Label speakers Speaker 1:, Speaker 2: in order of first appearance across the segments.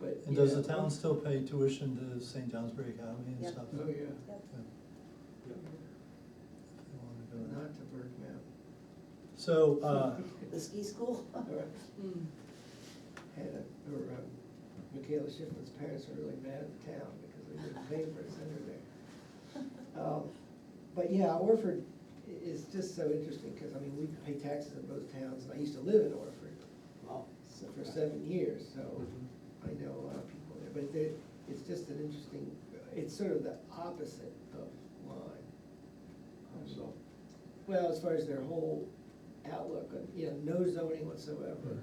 Speaker 1: but.
Speaker 2: And
Speaker 1: you
Speaker 2: does the
Speaker 1: know,
Speaker 2: town still pay tuition to St. Johnsbury Academy and
Speaker 3: Yep.
Speaker 2: stuff?
Speaker 1: Oh,
Speaker 2: Yeah,
Speaker 1: yeah,
Speaker 3: Yep.
Speaker 2: if they wanna
Speaker 1: but
Speaker 2: do that.
Speaker 1: not to Bergman.
Speaker 2: So, uh,
Speaker 3: The ski school?
Speaker 1: Or
Speaker 4: Mm.
Speaker 1: Hannah, or um, Michaela Shipman's parents were really mad at the town because they didn't pay for his center there. Um, But yeah, Orford i- is just so interesting, because I mean, we pay taxes in both towns, and I used to live in Orford
Speaker 5: Wow. Mm-hmm.
Speaker 1: so- for seven years, so
Speaker 5: Uh,
Speaker 1: I know a lot of people there, but they- it's just an interesting, it's sort of the opposite of Lyme. Um,
Speaker 5: So,
Speaker 1: Well, as far as their whole outlook, on, you know, no zoning whatsoever.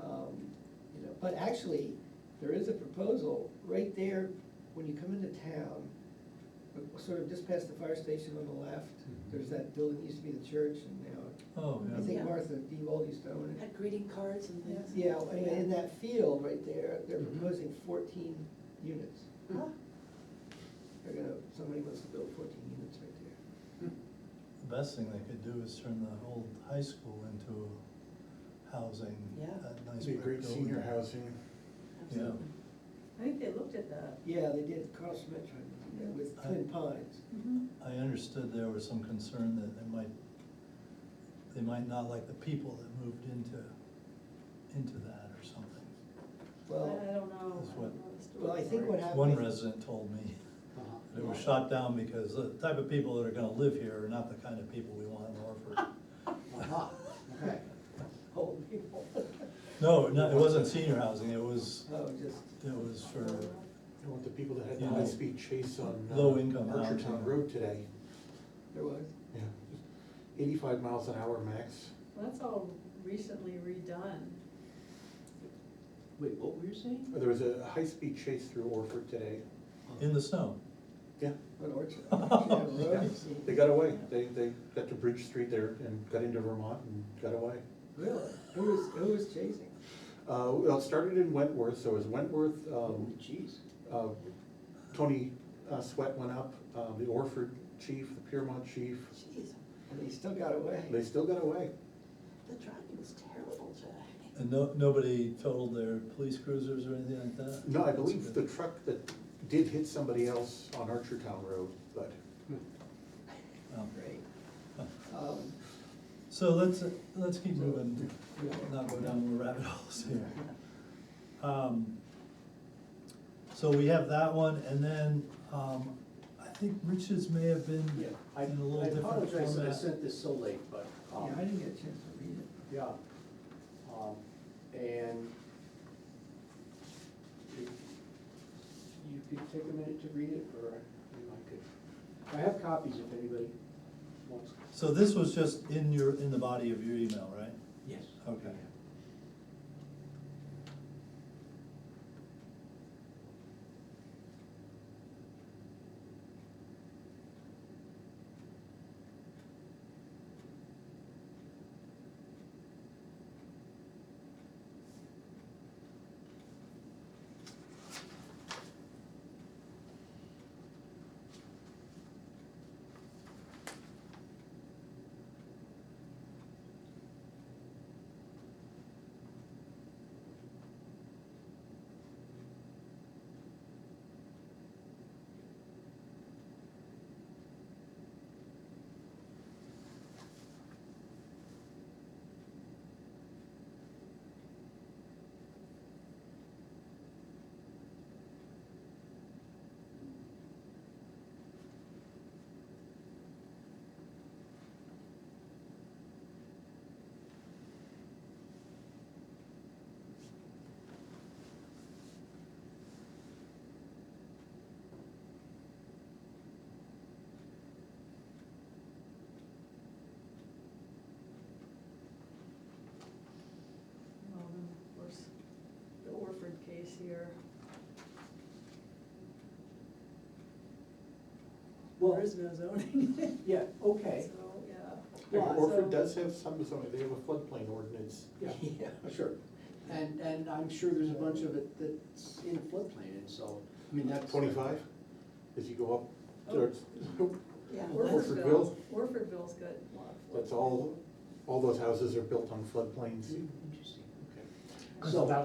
Speaker 1: Um, You know, but actually, there is a proposal right there, when you come into town, uh, sort of just past the fire station on the left, there's that building, used to be the church, and now,
Speaker 2: Mm-hmm. oh,
Speaker 1: I
Speaker 2: yeah,
Speaker 1: think
Speaker 3: Yeah.
Speaker 1: Martha Devold used to own it.
Speaker 3: Had greeting cards and things.
Speaker 1: Yeah, I mean, in that field right there, they're
Speaker 5: Mhm.
Speaker 1: proposing fourteen units.
Speaker 3: Huh?
Speaker 1: They're gonna, somebody wants to build fourteen units right there.
Speaker 2: the best thing they could do is turn the old high school into housing,
Speaker 3: Yeah.
Speaker 2: that nice
Speaker 5: it'd be
Speaker 2: brick
Speaker 5: great senior
Speaker 2: building.
Speaker 5: housing.
Speaker 3: Absolutely.
Speaker 4: I think they looked at that.
Speaker 1: Yeah, they did Carl Schmidt tried to do that with
Speaker 2: Yeah.
Speaker 1: Twin Pines.
Speaker 2: I understood there was some concern that they might, they might not like the people that moved into, into that or something.
Speaker 4: I I
Speaker 1: Well,
Speaker 4: don't know.
Speaker 2: That's
Speaker 4: I
Speaker 2: what-
Speaker 4: don't know the story.
Speaker 1: well, I think what happened.
Speaker 2: One resident told me,
Speaker 5: Uh-huh.
Speaker 2: that it was shot down because the type of people that are gonna live here are not the kind of people we want in Orford.
Speaker 5: Uh-huh. Okay.
Speaker 1: Old people.
Speaker 2: No, no, it wasn't senior housing, it was,
Speaker 1: Oh, just,
Speaker 2: it was for,
Speaker 5: I want the people that had the
Speaker 2: Yeah.
Speaker 5: high-speed chase on. uh,
Speaker 2: Low-income
Speaker 5: Archer Town
Speaker 2: housing.
Speaker 5: Road today,
Speaker 1: there was.
Speaker 5: yeah, just eighty-five miles an hour max.
Speaker 4: Well, that's all recently redone.
Speaker 6: Wait, what were you saying?
Speaker 5: There was a high-speed chase through Orford today,
Speaker 2: in the snow.
Speaker 5: yeah,
Speaker 1: An orchard. Orchard Road.
Speaker 5: they got away, they, they got to Bridge Street there and got into Vermont and got away.
Speaker 1: Really? Who was, who was chasing?
Speaker 5: Uh, well, it started in Wentworth, so it was Wentworth,
Speaker 1: Oh,
Speaker 5: um,
Speaker 1: jeez.
Speaker 5: uh, Tony uh, Sweat went up, um, the Orford chief, the Piermont chief,
Speaker 3: Jeez,
Speaker 1: And they still got away.
Speaker 5: they still got away.
Speaker 3: the driving was terrible, Jack.
Speaker 2: And no, nobody totaled their police cruisers or anything like that?
Speaker 5: No, I believe the truck that did hit somebody else on Archer Town Road, but
Speaker 2: Oh.
Speaker 1: Great. Um,
Speaker 2: So let's, let's keep moving,
Speaker 1: yeah.
Speaker 2: not go down more rabbit holes here. Um, So we have that one, and then, um, I think Rich's may have been
Speaker 6: Yeah, I,
Speaker 2: in a little
Speaker 6: I
Speaker 2: different format.
Speaker 6: apologize that I sent this so late, but, um,
Speaker 1: Yeah, I didn't get a chance to read it.
Speaker 6: yeah. Um, and if you could take a minute to read it, or you know, I could, I have copies if anybody wants.
Speaker 2: So this was just in your, in the body of your email, right?
Speaker 6: Yes.
Speaker 2: Okay.
Speaker 4: Well, then, of course, the Orford case here.
Speaker 6: Well-
Speaker 4: There is no zoning.
Speaker 6: Yeah, okay,
Speaker 4: So, yeah.
Speaker 6: Yeah,
Speaker 5: Orford
Speaker 4: so-
Speaker 5: does have some, some, they have a floodplain ordinance.
Speaker 6: yeah, sure. And, and I'm sure there's a bunch of it that's in floodplain, and so, I mean, that's.
Speaker 5: Twenty-five, as you go up towards,
Speaker 3: Yeah.
Speaker 5: Orfordville.
Speaker 4: Orfordville's got a lot of.
Speaker 6: Mm-hmm.
Speaker 5: that's all, all those houses are built on floodplains.
Speaker 6: Interesting, okay.
Speaker 5: So-